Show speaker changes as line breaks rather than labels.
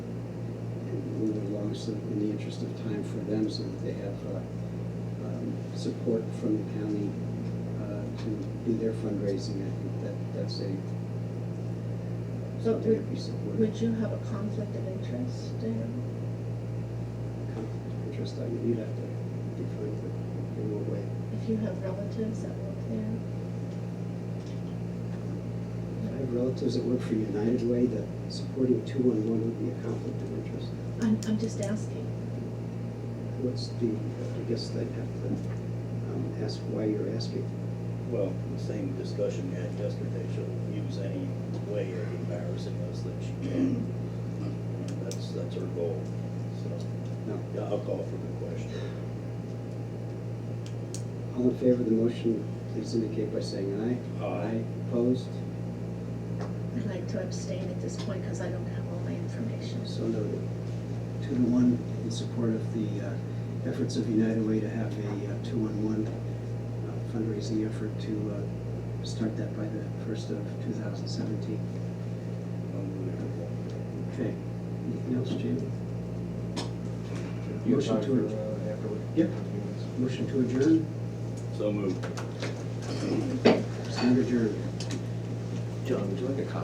so in the interest of time for them, so that they have uh, um, support from the county uh, to do their fundraising. I think that, that's a,
So
something
would,
that we support.
would you have a conflict of interest there?
Conflict of Interest, I mean, you'd have to define it in what way.
If you have relatives that work there?
I have relatives that work for United Way that supporting two-one-one would be a conflict of interest.
I'm, I'm just asking.
What's the, I guess I'd have to um, ask why you're asking.
Well, the same discussion we had yesterday, she'll use any way of embarrassing us that she can. That's, that's her goal, so,
No.
yeah, I'll call for the question.
All in favor of the motion, please indicate by saying aye.
Aye.
Opposed?
I'd like to abstain at this point because I don't have all my information.
So noted. Two to one in support of the uh, efforts of United Way to have a uh, two-on-one uh, fundraising effort to uh, start that by the first of two thousand seventeen.
Unbelievable.
Okay, anything else, Jamie?
You
Motion
apply
to
for, uh, afterward.
Yep. Motion to adjourn,
So moved.
stand adjourned.
John, would you like a copy